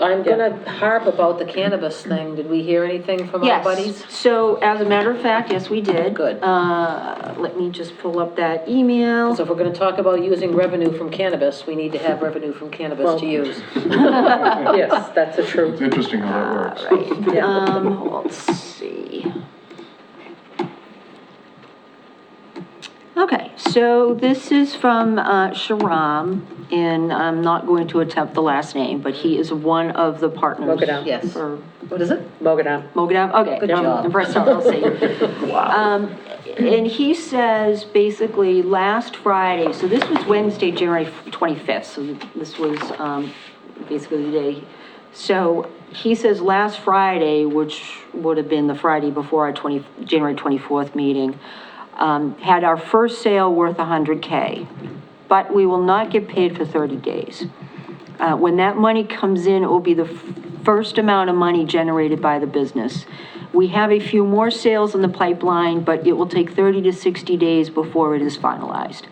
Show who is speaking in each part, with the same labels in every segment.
Speaker 1: I'm gonna harp about the cannabis thing. Did we hear anything from our buddies?
Speaker 2: Yes, so as a matter of fact, yes, we did.
Speaker 1: Good.
Speaker 2: Uh, let me just pull up that email.
Speaker 1: So if we're gonna talk about using revenue from cannabis, we need to have revenue from cannabis to use.
Speaker 3: Yes, that's a true.
Speaker 4: It's interesting how that works.
Speaker 2: Um, let's see. Okay, so this is from uh, Sharam, and I'm not going to attempt the last name, but he is one of the partners.
Speaker 3: Mogadam.
Speaker 1: Yes.
Speaker 2: for
Speaker 1: What is it?
Speaker 3: Mogadam.
Speaker 2: Mogadam, okay.
Speaker 1: Good job.
Speaker 2: And Bristol, I'll see. Um, And he says, basically, last Friday, so this was Wednesday, January 25th, so this was um, basically the day. So he says, last Friday, which would have been the Friday before our 20, January 24th meeting, um, had our first sale worth 100K, but we will not get paid for 30 days. Uh, When that money comes in, it will be the f- first amount of money generated by the business. We have a few more sales in the pipeline, but it will take 30 to 60 days before it is finalized.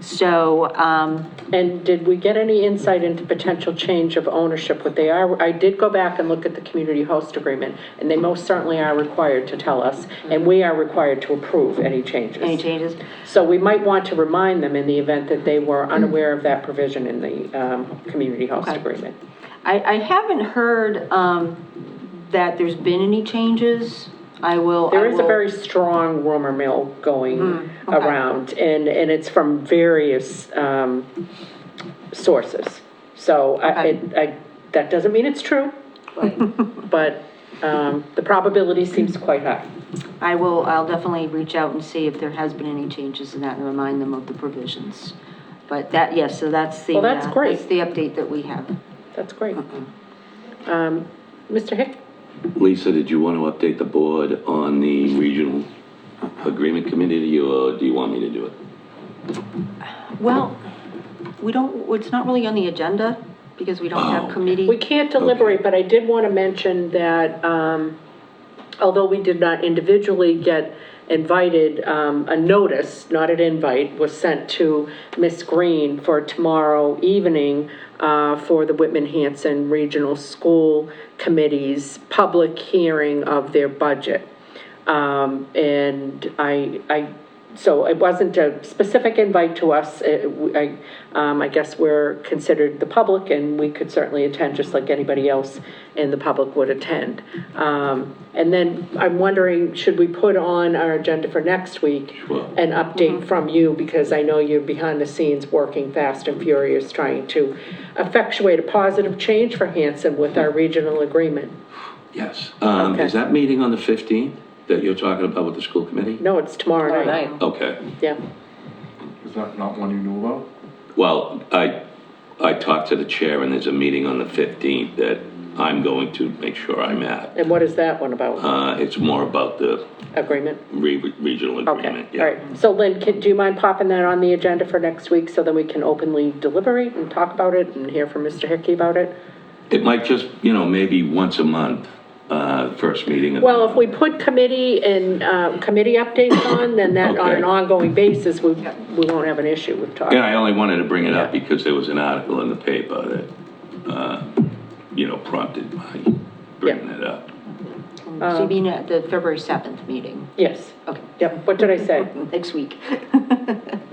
Speaker 2: So, um,
Speaker 3: And did we get any insight into potential change of ownership, what they are? I did go back and look at the community host agreement, and they most certainly are required to tell us, and we are required to approve any changes.
Speaker 2: any changes?
Speaker 3: So we might want to remind them in the event that they were unaware of that provision in the um, community host
Speaker 2: Okay.
Speaker 3: agreement.
Speaker 2: I, I haven't heard um, that there's been any changes. I will. I
Speaker 3: There is a
Speaker 2: will- Hmm,
Speaker 3: very strong rumor mill going around, and, and it's from various um, sources. So I,
Speaker 2: Okay.
Speaker 3: it- I, that doesn't mean it's true, but um, the probability seems quite high.
Speaker 2: I will, I'll definitely reach out and see if there has been any changes in that and remind them of the provisions. But that, yes, so that's the.
Speaker 3: Well, that's
Speaker 2: uh,
Speaker 3: great.
Speaker 2: That's the update that we have.
Speaker 3: That's great. Um, Mr. Hick?
Speaker 5: Lisa, did you want to update the board on the regional agreement committee, or do you want me to do it?
Speaker 2: Well, we don't, it's not really on the agenda because we don't have committee.
Speaker 3: Oh, We can't deliberate, but I did want to mention that um, although we did not individually get invited, um, a notice, not an invite, was sent to Miss Green for tomorrow evening uh, for the Whitman-Hanson Regional School Committee's public hearing of their budget. Um, and I, I, so it wasn't a specific invite to us. It- I, um, I guess we're considered the public and we could certainly attend just like anybody else in the public would attend. Um, and then I'm wondering, should we put on our agenda for next week?
Speaker 5: Sure.
Speaker 3: An update from you because I know you're behind the scenes working fast and furious trying to effectuate a positive change for Hanson with our regional agreement.
Speaker 5: Yes. Um,
Speaker 3: Okay.
Speaker 5: is that meeting on the 15th that you're talking about with the school committee?
Speaker 3: No, it's tomorrow
Speaker 1: All
Speaker 3: night.
Speaker 1: right.
Speaker 5: Okay.
Speaker 3: Yeah.
Speaker 4: Is that not one you knew about?
Speaker 5: Well, I, I talked to the chair, and there's a meeting on the 15th that I'm going to make sure I'm at.
Speaker 3: And what is that one about?
Speaker 5: Uh, it's more about the
Speaker 3: Agreement?
Speaker 5: re- regional
Speaker 3: Okay,
Speaker 5: agreement.
Speaker 3: all right. So Lynn, can, do you mind popping that on the agenda for next week so that we can openly deliberate and talk about it and hear from Mr. Hickey about it?
Speaker 5: It might just, you know, maybe once a month, uh, first meeting. of the
Speaker 3: Well, if
Speaker 5: month.
Speaker 3: we put committee and, uh, committee updates on, then that, on an
Speaker 5: Okay.
Speaker 3: ongoing basis, we, we won't have an issue with talking.
Speaker 5: Yeah, I only wanted to bring it up because there was an article in the paper that, uh, you know, prompted my bringing it up.
Speaker 2: So you mean at the February 7th meeting?
Speaker 3: Yes,
Speaker 2: Okay,
Speaker 3: um, yep, what did I say?
Speaker 2: next week.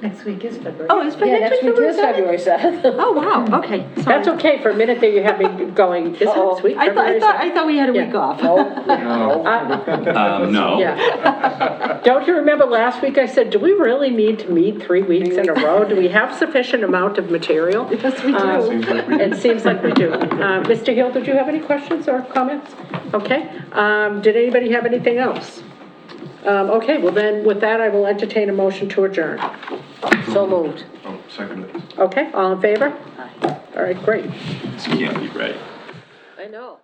Speaker 6: Next week is February.
Speaker 2: Oh, it's
Speaker 6: Yeah, next week
Speaker 2: February
Speaker 6: is February 7th.
Speaker 2: 7th? Oh, wow, okay.
Speaker 3: That's okay, for a minute there you had me going, is it
Speaker 6: Uh-oh.
Speaker 3: next week?
Speaker 2: I thought,
Speaker 3: February
Speaker 2: I thought,
Speaker 3: seventh?
Speaker 2: I thought we had a week
Speaker 3: Yeah. Oh,
Speaker 2: off.
Speaker 5: Um, no.
Speaker 3: Yeah. Don't you remember last week I said, do we really need to meet three weeks in a row? Do we have sufficient amount of material? Yes, we do.
Speaker 4: Seems like we
Speaker 3: It seems like we do. Uh, Mr. Hill, did you have any questions or comments? Okay, um, did anybody have anything else? Um, okay, well then, with that, I will entertain a motion to adjourn.
Speaker 1: So moved.
Speaker 4: Oh, second it.
Speaker 3: Okay, all in favor? All right, great.
Speaker 5: This can't be right.
Speaker 1: I know.